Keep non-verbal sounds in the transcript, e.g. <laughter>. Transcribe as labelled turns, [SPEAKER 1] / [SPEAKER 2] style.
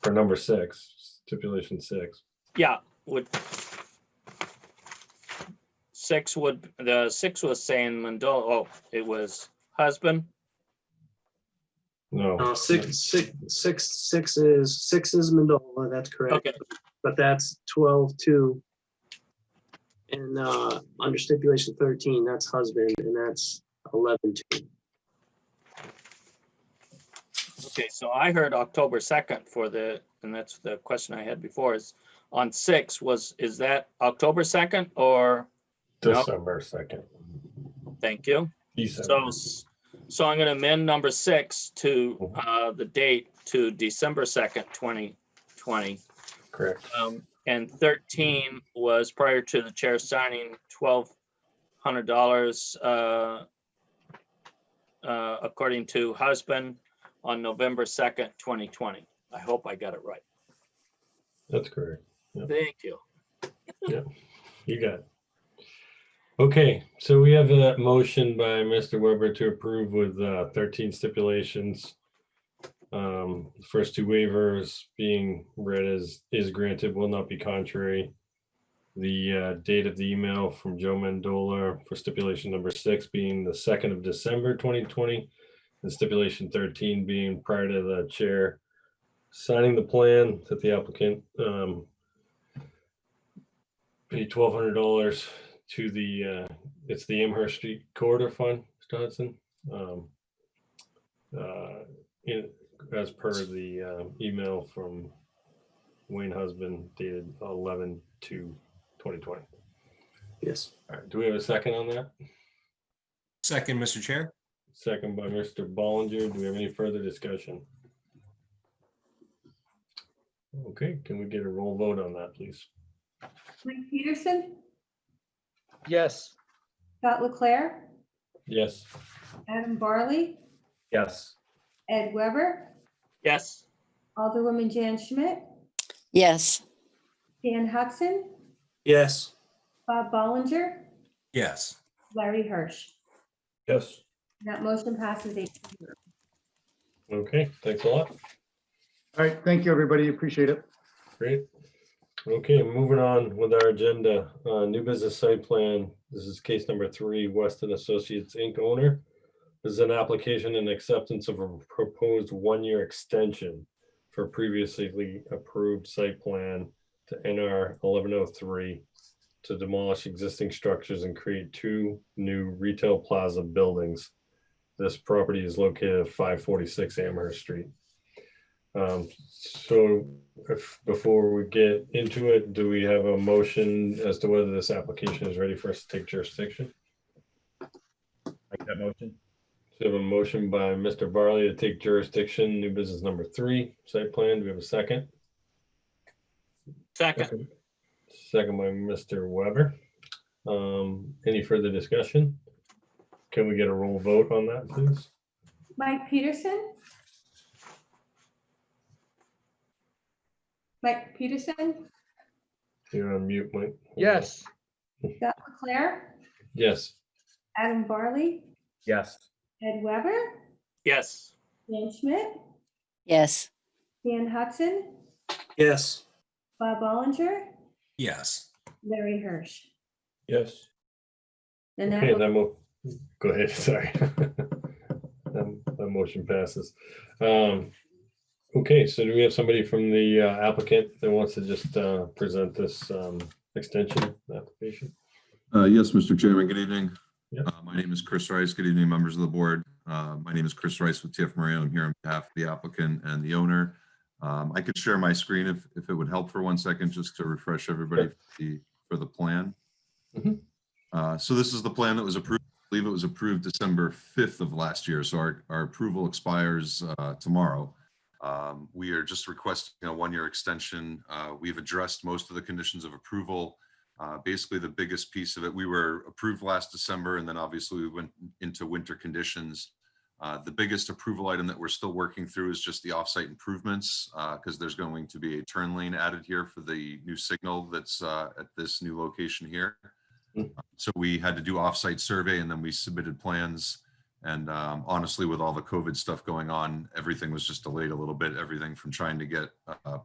[SPEAKER 1] for number six, stipulation six.
[SPEAKER 2] Yeah, would. Six would, the six was saying Mendola, oh, it was husband.
[SPEAKER 1] No. Oh,
[SPEAKER 3] No, Oh, Uh, six, six, six, six is, six is Mandola, that's correct,
[SPEAKER 2] Okay,
[SPEAKER 3] but that's twelve, two. And, uh, under stipulation thirteen, that's husband, and that's eleven, two.
[SPEAKER 2] okay, so I heard October second for the, and that's the question I had before is on six was, is that October second or,
[SPEAKER 1] December second.
[SPEAKER 2] thank you. So,
[SPEAKER 1] December.
[SPEAKER 2] s- so I'm gonna amend number six to, uh, the date to December second, twenty twenty.
[SPEAKER 1] Correct.
[SPEAKER 2] Um, and thirteen was prior to the chair signing twelve hundred dollars, uh, uh, according to husband on November second, twenty twenty. I hope I got it right.
[SPEAKER 1] That's correct.
[SPEAKER 2] Thank you.
[SPEAKER 1] You got it. Okay, so we have a motion by Mr. Weber to approve with uh, thirteen stipulations. Um, the First two waivers being read as is granted will not be contrary. The uh, date of the email from Joe Mandola for stipulation number six being the second of December twenty twenty. And stipulation thirteen being prior to the chair signing the plan that the applicant um, pay twelve hundred dollars to the, uh, it's the Amherst Street Corridor Fund, Mr. Hudson. um, uh, In, as per the um, email from Wayne Husband dated eleven to twenty twenty.
[SPEAKER 3] Yes.
[SPEAKER 1] All right, do we have a second on that?
[SPEAKER 4] Second, Mr. Chair.
[SPEAKER 1] Second by Mr. Ballinger. Do we have any further discussion? Okay, can we get a roll vote on that, please?
[SPEAKER 5] Mike Peterson,
[SPEAKER 6] yes,
[SPEAKER 5] Scott Leclair,
[SPEAKER 1] Yes.
[SPEAKER 5] Adam Barley,
[SPEAKER 1] Yes.
[SPEAKER 5] Ed Weber,
[SPEAKER 2] Yes,
[SPEAKER 5] Alderwoman Jan Schmidt,
[SPEAKER 7] yes,
[SPEAKER 5] Dan Hudson,
[SPEAKER 3] Yes.
[SPEAKER 5] Bob Ballinger,
[SPEAKER 4] Yes.
[SPEAKER 5] Larry Hirsch.
[SPEAKER 1] Yes.
[SPEAKER 5] That motion passes eight to zero.
[SPEAKER 1] Okay, thanks a lot.
[SPEAKER 6] all right, thank you, everybody, appreciate it.
[SPEAKER 1] Great. Okay, moving on with our agenda, uh, new business site plan. This is case number three, Weston Associates Inc. owner. This is an application and acceptance of a proposed one-year extension for previously approved site plan to NR eleven oh three to demolish existing structures and create two new retail plaza buildings. This property is located at five forty-six Amherst Street. Um, so if, before we get into it, do we have a motion as to whether this application is ready for us to take jurisdiction?
[SPEAKER 8] Make that motion?
[SPEAKER 1] So we have a motion by Mr. Barley to take jurisdiction, new business number three, site plan. Do we have a second?
[SPEAKER 2] second,
[SPEAKER 1] Second by Mr. Weber. Um, any further discussion? Can we get a roll vote on that, please?
[SPEAKER 5] Mike Peterson? Mike Peterson,
[SPEAKER 1] You're on mute, Mike.
[SPEAKER 6] Yes,
[SPEAKER 5] Scott Leclair,
[SPEAKER 1] Yes.
[SPEAKER 5] Adam Barley,
[SPEAKER 8] Yes.
[SPEAKER 5] Ed Weber,
[SPEAKER 2] yes,
[SPEAKER 5] Jan Schmidt,
[SPEAKER 7] yes,
[SPEAKER 5] Dan Hudson,
[SPEAKER 3] Yes.
[SPEAKER 5] Bob Ballinger,
[SPEAKER 4] Yes.
[SPEAKER 5] Larry Hirsch.
[SPEAKER 1] Yes.
[SPEAKER 5] And that
[SPEAKER 1] Okay,
[SPEAKER 5] will
[SPEAKER 1] that mo, go ahead, <laughs> sorry. That that motion passes. Um, Okay, so do we have somebody from the uh, applicant that wants to just uh, present this um, extension application?
[SPEAKER 9] Uh, Yes, Mr. Chairman, good evening.
[SPEAKER 1] Yep.
[SPEAKER 9] Uh, My name is Chris Rice. Good evening, members of the board. Uh, My name is Chris Rice with TF Mario. I'm here on behalf of the applicant and the owner. Um, I could share my screen if, if it would help for one second, just to refresh everybody
[SPEAKER 1] Sure.
[SPEAKER 9] for the, for the plan.
[SPEAKER 1] Mhm.
[SPEAKER 9] Uh, So this is the plan that was approved, I believe it was approved December 5th of last year, so our, our approval expires uh, tomorrow. Um, We are just requesting a one-year extension. Uh, We've addressed most of the conditions of approval. Uh, Basically, the biggest piece of it, we were approved last December, and then obviously we went into winter conditions. Uh, The biggest approval item that we're still working through is just the offsite improvements, because there's going to be a turn lane added here for the new signal that's uh, at this new location here.
[SPEAKER 1] Mm.
[SPEAKER 9] So we had to do offsite survey, and then we submitted plans And um, honestly, with all the COVID stuff going on, everything was just delayed a little bit. Everything from trying to get uh,